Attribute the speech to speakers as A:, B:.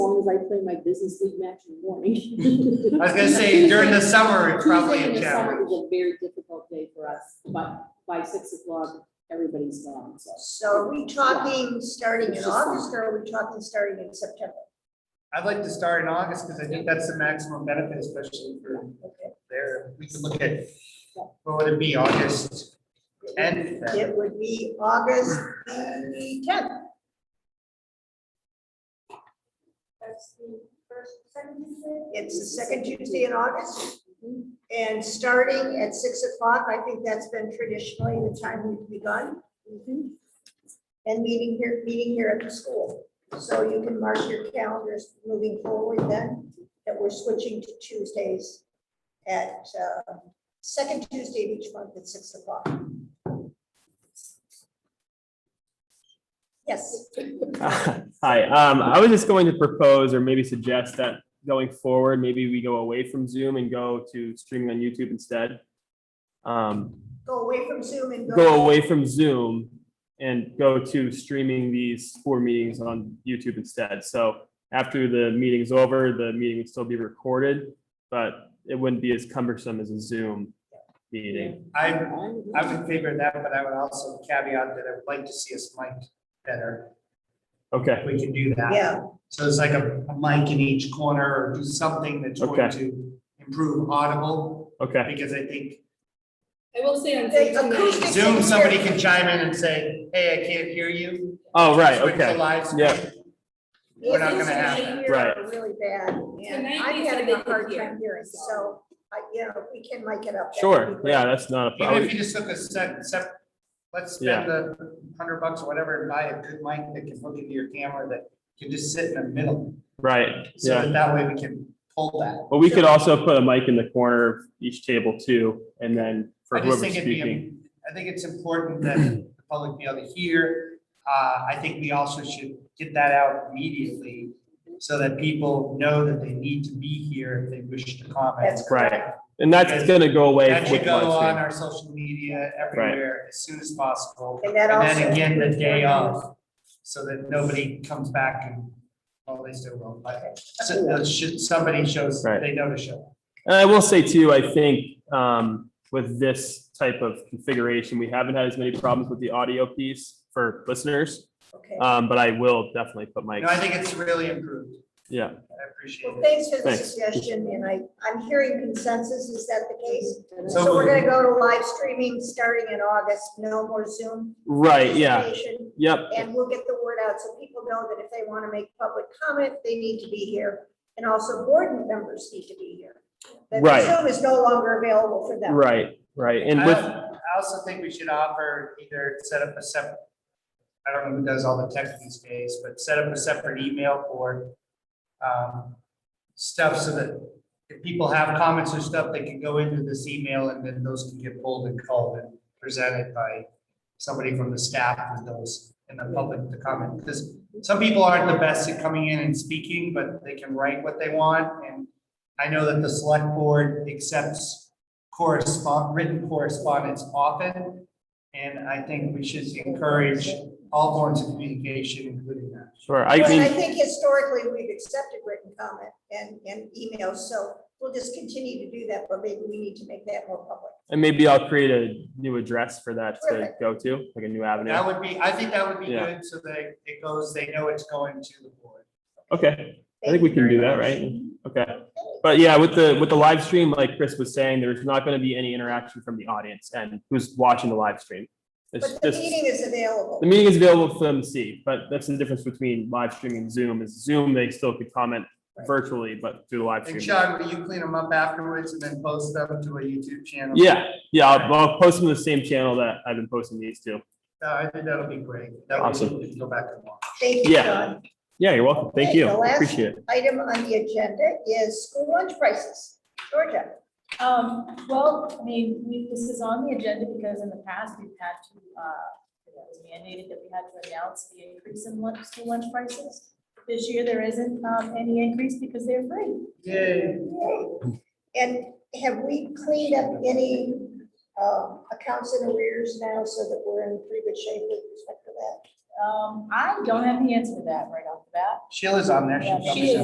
A: as I play my business league match in the morning.
B: I was gonna say, during the summer, it's probably
A: Tuesday in
B: a
A: the summer
B: challenge.
A: is a very difficult day for us, but by six o'clock, everybody's gone, so.
C: So are we talking starting in
A: It's just-
C: August or are we talking starting in September?
B: I'd like to start in August, because I think that's the maximum benefit, especially for there, we can look at, what would it be, August tenth?
C: It would be August the tenth.
D: That's the first, second Tuesday?
C: It's the second Tuesday in August. And starting at six o'clock, I think that's been traditionally the time we've begun. And meeting here, meeting here at the school. So you can mark your calendars moving forward then, that we're switching to Tuesdays at, uh, second Tuesday of each month at six o'clock. Yes.
E: Hi, um, I was just going to propose or maybe suggest that going forward, maybe we go away from Zoom and go to streaming on YouTube instead. Um,
C: go away from Zoom and go.
E: go away from Zoom and go to streaming these four meetings on YouTube instead. So after the meeting's over, the meeting would still be recorded, but it wouldn't be as cumbersome as a Zoom meeting.
B: I, I would favor that, but I would also caveat that I would like to see us mic better,
E: Okay,
B: if we can do that.
C: Yeah,
B: So it's like a, a mic in each corner, or do something that's going
E: Okay.
B: to improve audible,
E: okay,
B: because I think
A: I will say on
C: The Zoom tonight- acoustic-
B: Zoom, somebody can chime in and say, hey, I can't hear you.
E: oh, right,
B: Switch to
E: okay,
B: live screen.
E: Yeah.
B: We're not gonna have
C: These
B: that.
C: things
E: Right.
C: are Really bad, and
A: Tonight
C: I'm
A: they said
C: having
A: they
C: a hard
A: could hear,
C: time hearing, so, I, you know, if we can make it up. that would be
E: sure,
C: great.
E: yeah, that's not a
B: Even
E: problem.
B: if you just took a sec, sep, let's spend the hundred bucks or whatever and buy a good mic that can hook into your camera that can just sit in the middle.
E: Right,
B: So
E: yeah.
B: that that way we can pull that.
E: But we could also put a mic in the corner of each table too, and then for
B: I just
E: whoever's
B: think it'd be,
E: speaking.
B: im- I think it's important that the public be able to hear. Uh, I think we also should get that out immediately so that people know that they need to be here if they wish to comment.
C: That's
E: Right.
C: correct.
E: And that's gonna go away
B: That
E: with
B: should
E: live
B: go on
E: stream.
B: our social media everywhere as soon as possible.
C: And that
B: And
C: also.
B: then again, the day of, so that nobody comes back and, well, they still will, but so- uh, should, somebody shows,
E: Right.
B: they know to show.
E: And I will say too, I think, um, with this type of configuration, we haven't had as many problems with the audio piece for listeners.
C: Okay,
E: Um, but I will definitely put
B: No, I
E: mics,
B: think it's really improved.
E: yeah.
B: I appreciate
C: well,
B: it.
C: thanks for the
E: Thanks.
C: suggestion, and I, I'm hearing consensus, is that the case?
B: So-
C: So we're gonna go to live streaming starting in August, no more Zoom.
E: Right, yeah,
C: participation,
E: yep,
C: And we'll get the word out, so people know that if they wanna make public comment, they need to be here, and also board members need to be here. That
E: Right.
C: Zoom is no longer available for them.
E: right, right. And
B: I
E: with,
B: al- I also think we should offer either set up a separate, I don't know who does all the tech these days, but set up a separate email for um, stuff so that if people have comments or stuff, they can go into this email and then those can get pulled and called and presented by somebody from the staff with those in the public to comment. Because some people aren't the best at coming in and speaking, but they can write what they want. And I know that the select board accepts correspond, written correspondence often. And I think we should encourage all forms of communication, including that.
E: sure, I
C: Well, and I
E: mean,
C: think historically, we've accepted written comment and, and emails, so we'll just continue to do that, but maybe we need to make that more public.
E: and maybe I'll create a new address for that to
C: Perfect.
E: go to, like a new avenue.
B: That would be, I think that would be
E: Yeah.
B: good, so that it goes, they know it's going to the board.
E: Okay, I think we can do that, right? Okay. But yeah, with the, with the live stream, like Chris was saying, there's not gonna be any interaction from the audience and who's watching the live stream. It's
C: But the
E: just,
C: meeting is available.
E: the meeting is available for them to see, but that's the difference between live streaming and Zoom is Zoom, they still could comment virtually, but through the live
B: And
E: stream.
B: Sean, will you clean them up afterwards and then post them to a YouTube channel?
E: Yeah, yeah, I'll, I'll post them to the same channel that I've been posting these to.
B: Uh, I think that'll be great. That way
E: Awesome.
B: we can go back and watch.
C: Thank you,
E: yeah.
C: John.
E: Yeah, you're welcome. Thank
C: Okay,
E: you.
C: the last-
E: Appreciate it.
C: Item on the agenda is school lunch prices. Georgia,
D: Um, well, I mean, we, this is on the agenda because in the past, we've had to, uh, it was mandated that we had to announce the increase in lunch, school lunch prices. This year, there isn't, um, any increase because they're free.
B: Yay.
C: and have we cleaned up any um, accounts in arrears now so that we're in pretty good shape with respect to that?
D: Um, I don't have the answer to that right off the bat.
B: Sheila's on there.
D: Yeah,
B: She'll
D: she is.